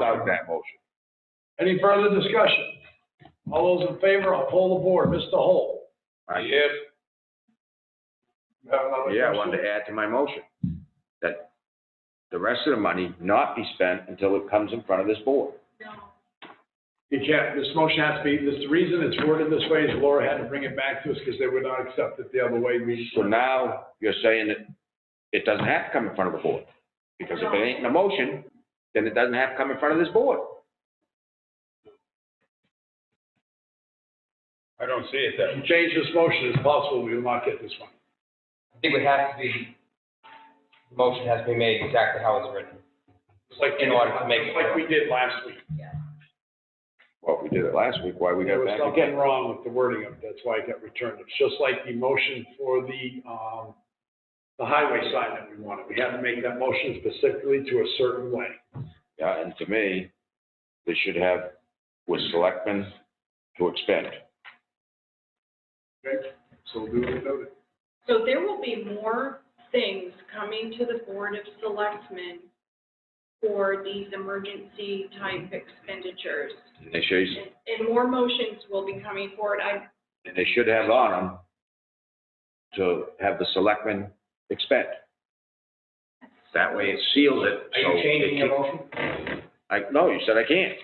that motion. Any further discussion? All those in favor, I'll poll the board. Mr. Holt? Yes. you have another Uh, Yeah, I question? wanted to add to my motion that the rest of the money not be spent until it comes in front of this board. You can't, this motion has to be, this, the reason it's worded this way is Laura had to bring it back to us because they would not accept it the other way. We, So now you're saying that it doesn't have to come in front of the board. Because if it ain't in the motion, then it doesn't have to come in front of this board. I don't see it that way. if you change this motion, it's possible we will not get this one. I think it would have to be, the motion has to be made exactly how it's written. It's like- In order to make it Like we did last week. Well, if we did it last week, why we There got was back something again? wrong with the wording of it. That's why it got returned. It's just like the motion for the, um, the highway sign that we wanted. We had to make that motion specifically to a certain way. Yeah, and to me, they should have with selectmen to expend. Okay? So we'll do what we noted. So there will be more things coming to the Board of Selectmen for these emergency type expenditures. And they should, And and more motions will be coming forward. I, and they should have on them to have the selectmen expend. That way it seals it. Are so you it changing your keeps- motion? I, no, you said I can't.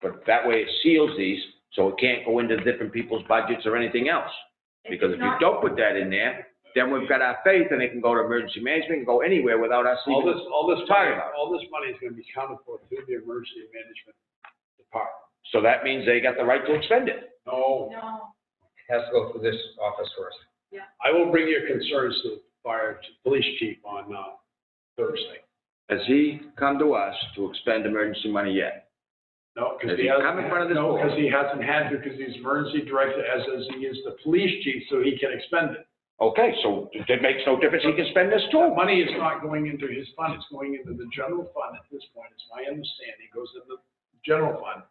But that way it seals these, so it can't go into different people's budgets or anything else. Because if it's you not, don't put that in there, then we've got our faith and it can go to emergency management and go anywhere without us All even. this, all this Talking money, about. all this money is gonna be counted for through the emergency management department. So that means they got the right to expend it. No, no, It has to go through this office first. I will bring your concerns to the fire, to the police chief on, uh, Thursday. Has he come to us to expend emergency money yet? No, because Has he he hasn't. come in had- front of this no, board? 'cause he hasn't had to, because he's emergency director as, as he is the police chief, so he can expend it. Okay, so it makes no difference. He can spend this That too. money is not going into his fund, it's going into the general fund at this point, it's my understanding, it goes in the general fund.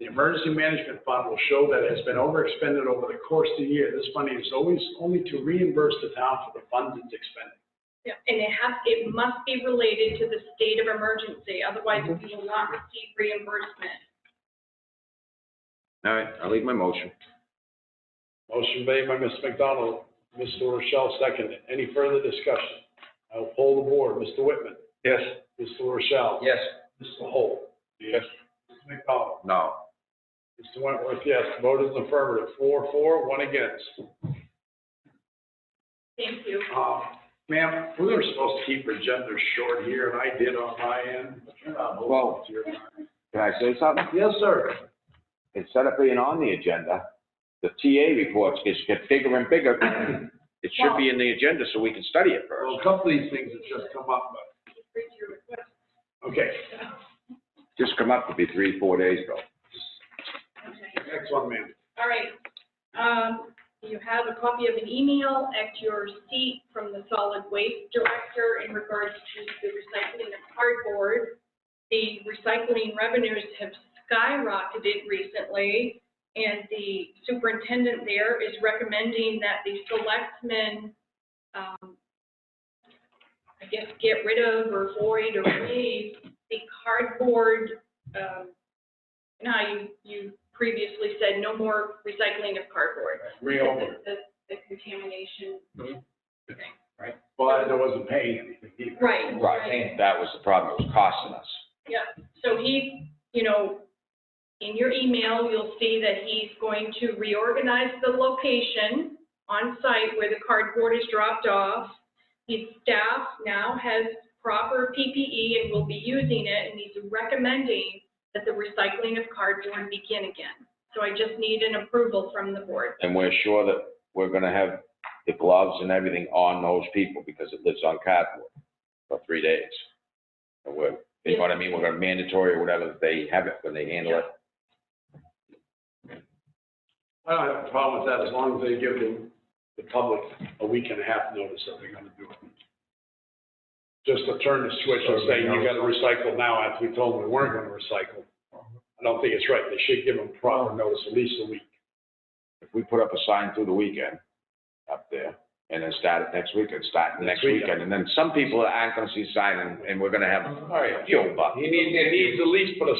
The emergency management fund will show that it's been overexpended over the course of the year, this money is always only to reimburse the town for the funds it's expended. yeah, and it has, it must be related to the state of emergency, otherwise we Mhm. will not receive reimbursement. All right, I'll leave my motion. Motion made by Mr. McDonald, Mr. Rochelle seconded. Any further discussion? I'll poll the board. Mr. Whitman? Yes. Mr. Rochelle? Yes, Mr. Holt? Yes. Mr. McDonald? No. Mr. Wentworth, yes. Vote is affirmative. Four, four, one against. Thank you. Um, ma'am, we were supposed to keep our agenda short here, and I did on my end. but you're not voting. Well- It's your time. Can I say something? Yes, sir. Instead of being on the agenda, the TA reports gets, get bigger and bigger. It should be in the agenda so we can study it first. Well, a couple of these things have just come up, but, Read your request. okay. Just come up to be three, four days ago. Okay. Next one, ma'am. All right. Um, you have a copy of an email at your seat from the solid waste director in regards to the recycling of cardboard. The recycling revenues have skyrocketed recently, and the superintendent there is recommending that the selectmen, um, I guess, get rid of or void or waive the cardboard, um, now, you, you previously said no more recycling of cardboard. Reopen. The, the contamination. But there wasn't paying anything either. Right. Right, that was the problem, it was costing us. So he, you know, in your email, you'll see that he's going to reorganize the location on site where the cardboard is dropped off. His staff now has proper PPE and will be using it, and he's recommending that the recycling of cardboard begin again. So I just need an approval from the board. And we're sure that we're gonna have the gloves and everything on those people because it lives on cardboard for three days. And we're, you know what I mean, we're gonna mandatory or whatever, they have it when they handle it. I don't have a problem with that as long as they give the, the public a week and a half notice that they're gonna do it. Just to turn the switch and say, you gotta recycle now after we told them we weren't gonna recycle. I don't think it's right. They should give them proper notice, at least a week. If we put up a sign through the weekend up there and then start it next weekend, start it next Next weekend, weekend. and then some people aren't gonna see sign and, and we're gonna have oh, All right. fuel bucks. He needs, he needs at least put a